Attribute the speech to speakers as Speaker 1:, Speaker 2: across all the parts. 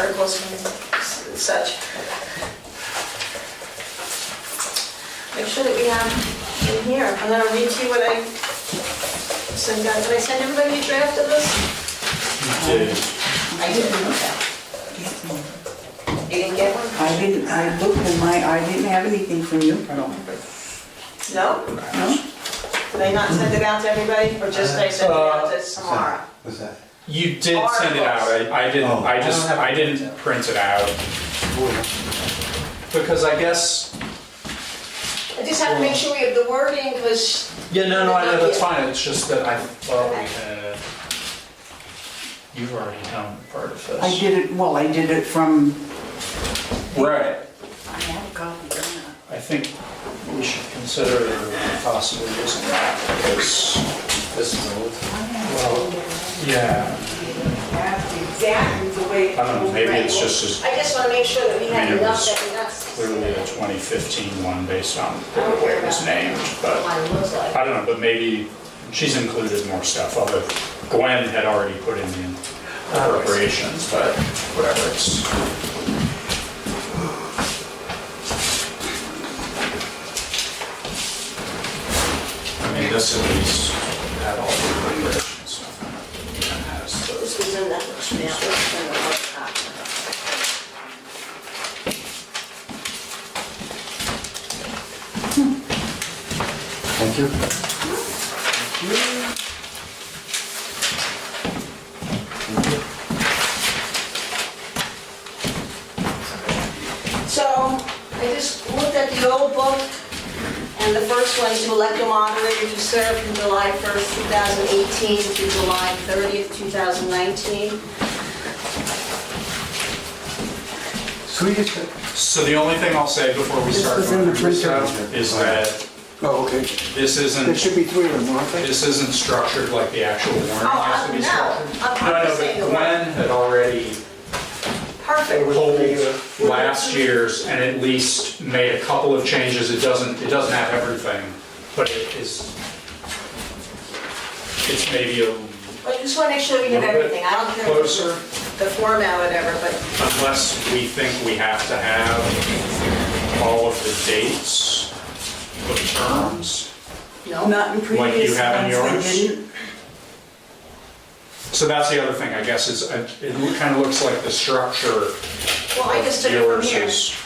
Speaker 1: tables and s- such. Make sure that we have in here, I'm gonna read to you what I sent out, did I send everybody a draft of this?
Speaker 2: I didn't know that.
Speaker 1: You didn't get one?
Speaker 2: I didn't, I looked in my, I didn't have anything from you, I don't,
Speaker 1: No?
Speaker 2: no?
Speaker 1: Did I not send it out to everybody, or just I sent it out to Samara?
Speaker 3: What's that?
Speaker 4: You did send it out, Oh, I, I didn't,
Speaker 3: Oh.
Speaker 4: I just, I didn't print it out. Because I guess,
Speaker 1: I just have to make sure we have the wording, because
Speaker 4: yeah, no, no, I know, that's fine, it's just that I thought we had. You've already done part of this.
Speaker 2: I did it, well, I did it from,
Speaker 4: Right,
Speaker 2: I have a copy of
Speaker 4: I think we should consider possibly using that because. This is old. Well, yeah,
Speaker 2: that. Exactly the way.
Speaker 4: I don't know, maybe it's just as
Speaker 1: I just want to make sure that we have
Speaker 4: Maybe it
Speaker 1: enough
Speaker 4: was
Speaker 1: that we're not.
Speaker 4: clearly a 2015 one based on the way it was named, but.
Speaker 1: Mine looks like.
Speaker 4: I don't know, but maybe she's included more stuff, although Gwen had already put in the appropriations, but whatever, it's. I mean, this at least had all the appropriation stuff in it, and has
Speaker 1: This
Speaker 4: those.
Speaker 1: was in the, yeah, this was in the hard
Speaker 3: Thank you.
Speaker 1: copy. So I just looked at the old book, and the first one, to elect a moderator to serve from July 1st, 2018 through July 30th, 2019.
Speaker 3: So we just,
Speaker 4: So the only thing I'll say before we
Speaker 2: This
Speaker 4: start
Speaker 2: was in
Speaker 4: going
Speaker 2: the
Speaker 4: through this
Speaker 2: printer.
Speaker 4: stuff is that
Speaker 3: oh, okay.
Speaker 4: this
Speaker 3: There
Speaker 4: isn't,
Speaker 3: should be three of them, aren't there?
Speaker 4: this isn't structured like the actual warrant
Speaker 1: Oh,
Speaker 4: has to be
Speaker 1: no. Uh,
Speaker 4: structured.
Speaker 1: I'm- I'm
Speaker 4: No, no,
Speaker 1: just saying the
Speaker 4: but
Speaker 1: word.
Speaker 4: Gwen had already
Speaker 1: Perfect.
Speaker 4: pulled last year's and at least made a couple of changes. It doesn't, it doesn't have everything, but it is, it's maybe a
Speaker 1: I just want to make sure we have
Speaker 4: Little bit
Speaker 1: everything. I don't care.
Speaker 4: closer.
Speaker 1: The format, whatever, but
Speaker 4: unless we think we have to have all of the dates, the terms.
Speaker 1: no.
Speaker 2: Not in
Speaker 4: Like you
Speaker 2: previous
Speaker 4: have in
Speaker 2: ones, I
Speaker 4: yours?
Speaker 2: didn't.
Speaker 4: So that's the other thing, I guess, is uh, it kind of looks like the structure
Speaker 1: Well, I just
Speaker 4: of
Speaker 1: took it from
Speaker 4: yours
Speaker 1: here.
Speaker 4: is,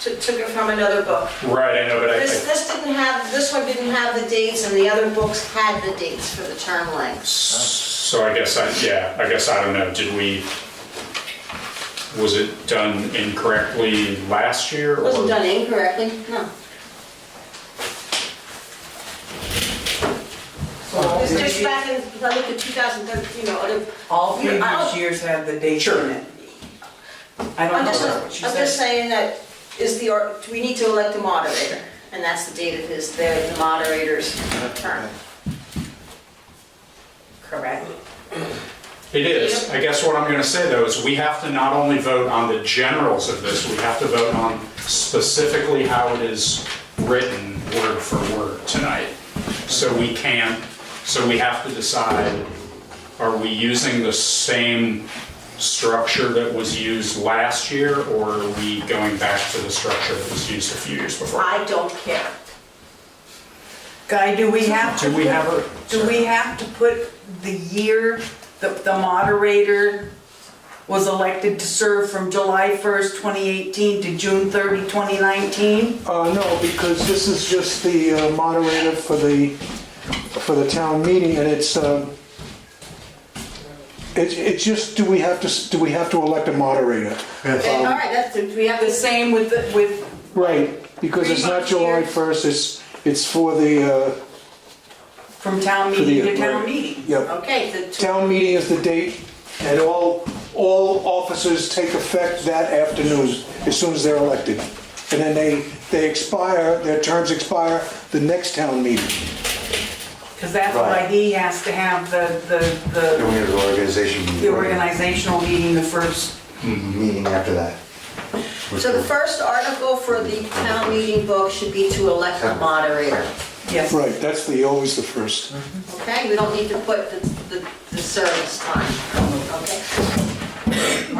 Speaker 1: Took took it from another book.
Speaker 4: right, I know, but I
Speaker 1: This,
Speaker 4: think,
Speaker 1: this didn't have, this one didn't have the dates, and the other books had the dates for the term lengths.
Speaker 4: so I guess I, yeah, I guess I don't know, did we, was it done incorrectly last year?
Speaker 1: It
Speaker 4: or-
Speaker 1: Wasn't done incorrectly, no. It's just back in, if I look at 2013, you know, it-
Speaker 2: All
Speaker 1: You- I
Speaker 2: previous
Speaker 1: don't-
Speaker 2: years had the date
Speaker 4: Sure.
Speaker 2: in it. I don't
Speaker 1: I'm
Speaker 2: know
Speaker 1: just,
Speaker 2: that's what she
Speaker 1: I'm just
Speaker 2: said.
Speaker 1: saying that is the, or- we need to elect a moderator, and that's the date of his, the moderator's term. Correct?
Speaker 4: It is. I guess what I'm going to say though is we have to not only vote on the generals of this, we have to vote on specifically how it is written word for word tonight. So we can't, so we have to decide, are we using the same structure that was used last year or are we going back to the structure that was used a few years before?
Speaker 1: I don't care.
Speaker 2: Guy, do we have to?
Speaker 4: Do we have
Speaker 2: put-
Speaker 4: a-
Speaker 2: Do we have to put the year that the moderator was elected to serve from July 1st, 2018 to June 30, 2019?
Speaker 5: Uh, no, because this is just the uh, moderator for the, for the town meeting, and it's, um, it's, it's just, do we have to, s- do we have to elect a moderator?
Speaker 1: Okay,
Speaker 2: Um,
Speaker 1: all right, that's, we have
Speaker 2: The
Speaker 1: this,
Speaker 2: same with, the- with,
Speaker 5: Right, because it's not July 1st, it's, it's for the, uh,
Speaker 2: from town
Speaker 5: For the-
Speaker 2: meeting to town
Speaker 5: right.
Speaker 2: meeting?
Speaker 5: yeah,
Speaker 1: okay, the tw-
Speaker 5: town meeting is the date, and all, all officers take effect that afternoon, as soon as they're elected. And then they, they expire, their terms expire the next town meeting.
Speaker 2: Because that's why
Speaker 3: Right.
Speaker 2: he has to have the, the-
Speaker 3: Then we
Speaker 2: the,
Speaker 3: have the organization meeting.
Speaker 2: the organizational meeting the first.
Speaker 3: Meeting after that.
Speaker 1: so the first article for the town meeting book should be to elect a moderator.
Speaker 2: Yes.
Speaker 5: Right, that's the, always the first.
Speaker 1: Okay, we don't need to put the, the- the service time, okay?